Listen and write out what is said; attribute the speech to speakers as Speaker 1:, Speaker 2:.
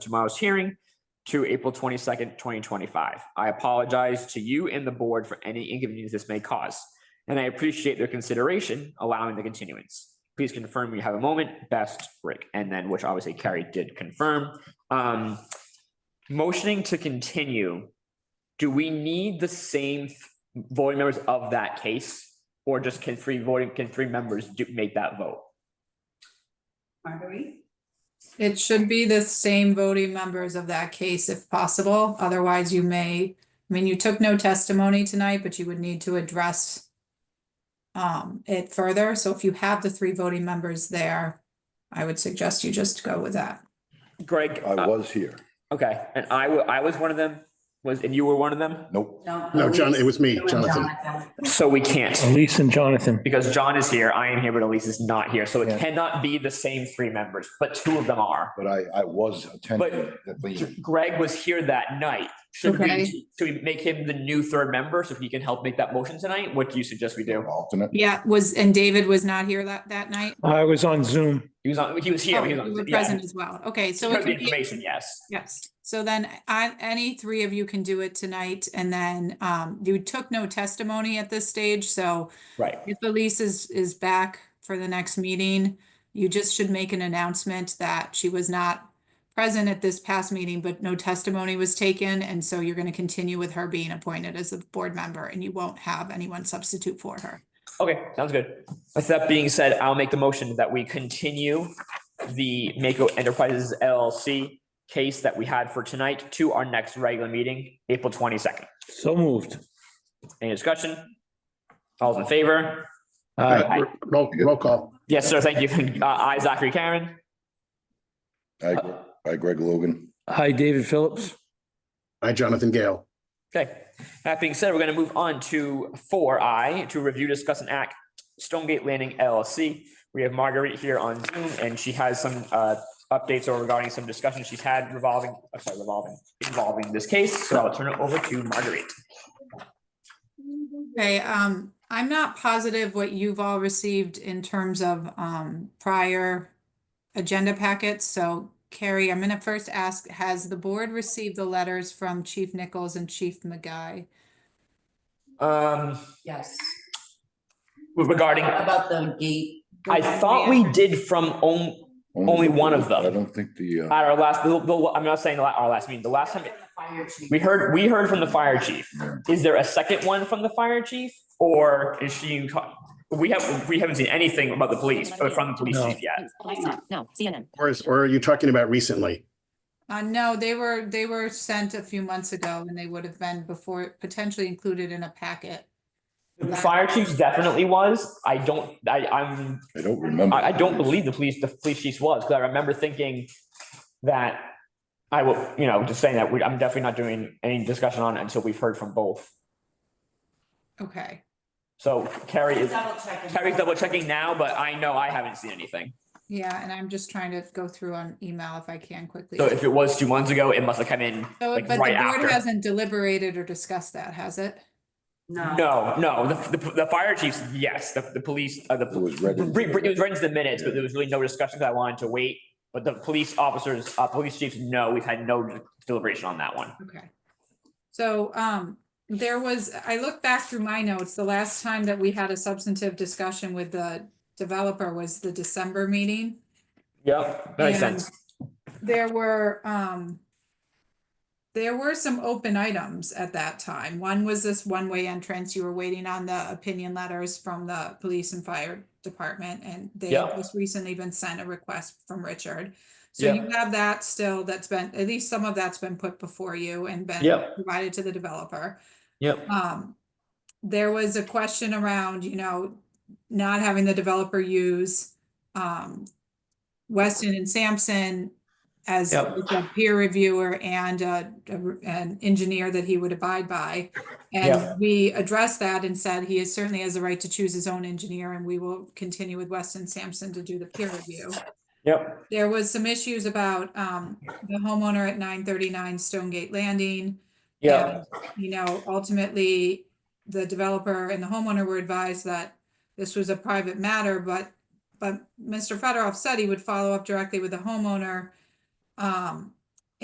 Speaker 1: tomorrow's hearing to April twenty-second, twenty twenty-five. I apologize to you and the board for any inconvenience this may cause, and I appreciate their consideration allowing the continuance. Please confirm you have a moment, best Rick, and then, which obviously Carrie did confirm. Um, motioning to continue, do we need the same voting members of that case? Or just can three voting, can three members do, make that vote?
Speaker 2: Marguerite?
Speaker 3: It should be the same voting members of that case if possible, otherwise you may, I mean, you took no testimony tonight, but you would need to address um, it further, so if you have the three voting members there, I would suggest you just go with that.
Speaker 1: Greg,
Speaker 4: I
Speaker 1: uh,
Speaker 4: was here.
Speaker 1: okay, and I, wa- I was one of them, was, and you were one of them?
Speaker 4: Nope.
Speaker 2: No.
Speaker 5: No, John, it was me,
Speaker 2: Elise.
Speaker 5: Jonathan.
Speaker 1: So we can't.
Speaker 6: Elise and Jonathan.
Speaker 1: Because John is here, I am here, but Elise is not here. So
Speaker 6: Yeah.
Speaker 1: it cannot be the same three members, but two of them are.
Speaker 4: But I, I was attending the meeting.
Speaker 1: Greg was here that night. Should
Speaker 3: Okay.
Speaker 1: we, should we make him the new third member so he can help make that motion tonight? What do you suggest we do?
Speaker 4: alternate.
Speaker 3: Yeah, was, and David was not here that, that night?
Speaker 6: I was on Zoom.
Speaker 1: He was on, he was here.
Speaker 3: Oh,
Speaker 1: he was
Speaker 3: You were
Speaker 1: on- yeah.
Speaker 3: present as well, okay, so. it
Speaker 1: Because of The
Speaker 3: could be-
Speaker 1: information, yes.
Speaker 3: Yes, so then I, any three of you can do it tonight, and then um, you took no testimony at this stage, so
Speaker 1: Right.
Speaker 3: If Elise is, is back for the next meeting, you just should make an announcement that she was not present at this past meeting, but no testimony was taken, and so you're gonna continue with her being appointed as a board member, and you won't have anyone substitute for her.
Speaker 1: Okay, sounds good. With that being said, I'll make the motion that we continue the Mako Enterprises LLC case that we had for tonight to our next regular meeting, April twenty-second.
Speaker 6: So moved.
Speaker 1: Any discussion? All's in favor?
Speaker 6: Aye.
Speaker 5: Uh, Roll, roll call.
Speaker 1: Yes, sir, thank you. Uh, I, Zachary Karen.
Speaker 4: I,
Speaker 1: uh,
Speaker 4: I Greg Logan.
Speaker 6: Hi, David Phillips.
Speaker 5: I, Jonathan Gale.
Speaker 1: Okay, that being said, we're gonna move on to four I, to review, discuss and act, Stonegate Landing LLC. We have Marguerite here on Zoom and she has some uh updates or regarding some discussions she's had revolving, I'm sorry, revolving, involving this case. So I'll turn it over to Marguerite.
Speaker 3: Okay, um, I'm not positive what you've all received in terms of um, prior agenda packets, so Carrie, I'm gonna first ask, has the board received the letters from Chief Nichols and Chief McGuy?
Speaker 1: Um,
Speaker 2: Yes.
Speaker 1: regarding,
Speaker 2: About the gate.
Speaker 1: I thought we did from own, Only one of them.
Speaker 4: I don't think the, uh,
Speaker 1: at our last, the- the- I'm not saying the la- our last meeting, the last time,
Speaker 2: Fire chief.
Speaker 1: we heard, we heard from the fire chief. Is there a second one from the fire chief or is she, we have, we haven't seen anything about the police, uh, from the police
Speaker 6: No.
Speaker 1: chief yet.
Speaker 7: No, CNN.
Speaker 5: Or is, or are you talking about recently?
Speaker 3: Uh, no, they were, they were sent a few months ago and they would have been before, potentially included in a packet.
Speaker 1: The fire chief definitely was. I don't, I, I'm,
Speaker 4: I don't remember.
Speaker 1: I, I don't believe the police, the police chief was, because I remember thinking that I will, you know, just saying that we, I'm definitely not doing any discussion on it until we've heard from both.
Speaker 3: Okay,
Speaker 1: So Carrie is,
Speaker 2: Double check.
Speaker 1: Carrie's double checking now, but I know I haven't seen anything.
Speaker 3: yeah, and I'm just trying to go through on email if I can quickly.
Speaker 1: So if it was two months ago, it must have come in
Speaker 3: So,
Speaker 1: like
Speaker 3: but the
Speaker 1: right
Speaker 3: board
Speaker 1: after.
Speaker 3: hasn't deliberated or discussed that, has it?
Speaker 2: No.
Speaker 1: No, no, the, the, the fire chiefs, yes, the, the police, uh, the.
Speaker 4: It was read into
Speaker 1: Re-
Speaker 4: the
Speaker 1: re- It was right into the minutes, but there was really no discussion because I wanted to wait. But the police officers, uh, police chiefs, no, we've had no deliberation on that one.
Speaker 3: Okay. So, um, there was, I looked back through my notes, the last time that we had a substantive discussion with the developer was the December meeting.
Speaker 1: Yep. That makes
Speaker 3: And
Speaker 1: sense.
Speaker 3: There were, um, there were some open items at that time. One was this one-way entrance. You were waiting on the opinion letters from the police and fire department, and they
Speaker 1: Yeah.
Speaker 3: had just recently been sent a request from Richard. So you have that still, that's been, at least some of that's been put before you and been
Speaker 1: Yep.
Speaker 3: provided to the developer.
Speaker 1: Yep.
Speaker 3: Um, there was a question around, you know, not having the developer use, um, Weston and Sampson as
Speaker 1: Yep.
Speaker 3: a peer reviewer and, uh, a- an engineer that he would abide by. And
Speaker 1: Yep.
Speaker 3: we addressed that and said he is certainly has the right to choose his own engineer and we will continue with Weston Sampson to do the peer review.
Speaker 1: Yep.
Speaker 3: There was some issues about, um, the homeowner at nine thirty-nine Stonegate Landing.
Speaker 1: Yep.
Speaker 3: And, You know, ultimately, the developer and the homeowner were advised that this was a private matter, but, but Mr. Fedorov said he would follow up directly with the homeowner. Um,